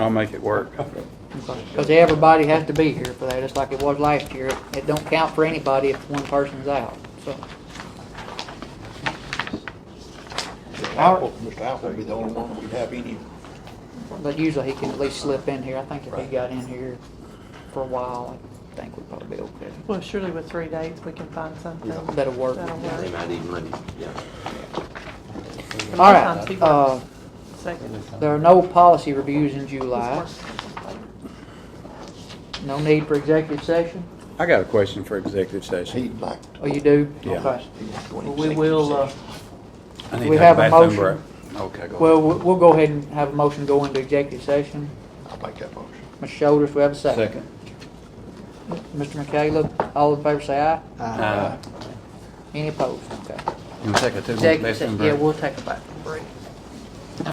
I'll make it work. Because everybody has to be here for that, just like it was last year. It don't count for anybody if one person's out, so. Apple, Mr. Apple would be the only one that we'd have any, But usually he can at least slip in here. I think if he got in here for a while, I think we'd probably be okay. Well, surely with three dates, we can find something. That'll work. That'll Yeah, they work. might even let it, yeah. All Sometimes he right, works uh, Second. there are no policy reviews in July. He's working. No need for executive session? I got a question for executive session. he'd like to. Oh, you do? Yeah. Okay. he'd like to go in Well, we executive will, uh, session. I need We to have have a a bathroom motion. break. Okay, go. well, we- we'll go ahead and have a motion go into executive session. I'll make that motion. Mr. Shoulders, we have a second. Second. Mr. McCallum, all in favor say aye. Uh, Any opposed? Okay. You want to take a two-minute Executive bathroom session, break? yeah, we'll take a bathroom break.